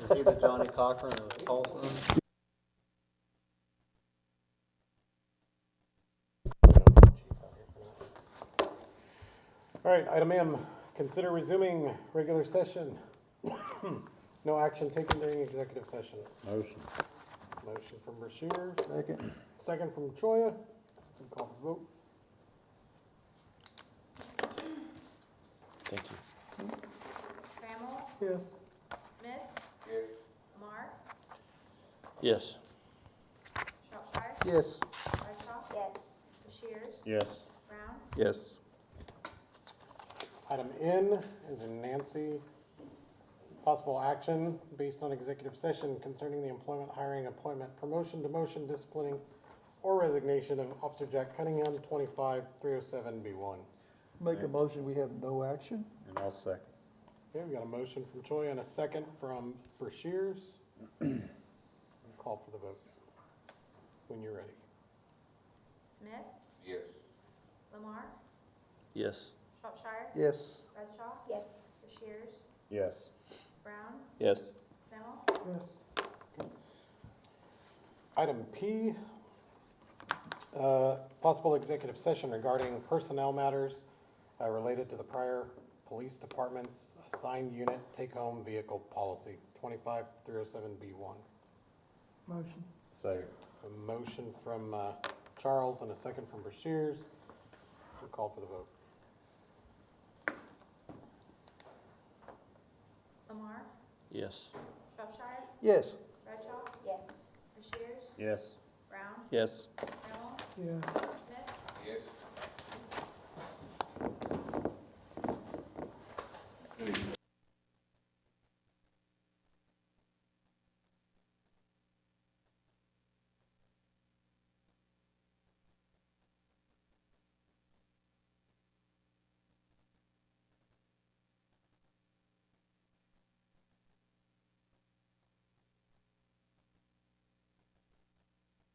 Is he the Johnny Cochran of Tulsa? All right, item M, consider resuming regular session. No action taken during executive session. Motion. Motion from Rushier, Second. second from Choya. We Call for the vote. Thank you. Trammell, Yes. Smith. Lamar, Yes. Shropshire, Yes. Brightcroft. Yes. Rushiers, Yes. Brown, Yes. Item N is in Nancy. Possible action based on executive session concerning the employment, hiring, appointment, promotion, demotion, disciplining, or resignation of Officer Jack Cunningham, twenty-five, three oh seven, B one. Make a motion, we have no action? And I'll second. Okay, we got a motion from Choi and a second from Brashears. Call for the vote when you're ready. Smith. Yes. Lamar, Yes. Shropshire, Yes. Bradshaw. Yes. Rushiers, Yes. Brown, Yes. Trammell, Yes. Item P, uh, possible executive session regarding personnel matters uh, related to the prior police department's assigned unit take-home vehicle policy, 25307B1. Motion. Second. A motion from uh, Charles and a second from Brashears. We'll Call for the vote. Lamar, Yes. Shropshire, Yes. Bradshaw. Yes. Rushiers, Yes. Brown, Yes. Trammell, Yes. Smith. Please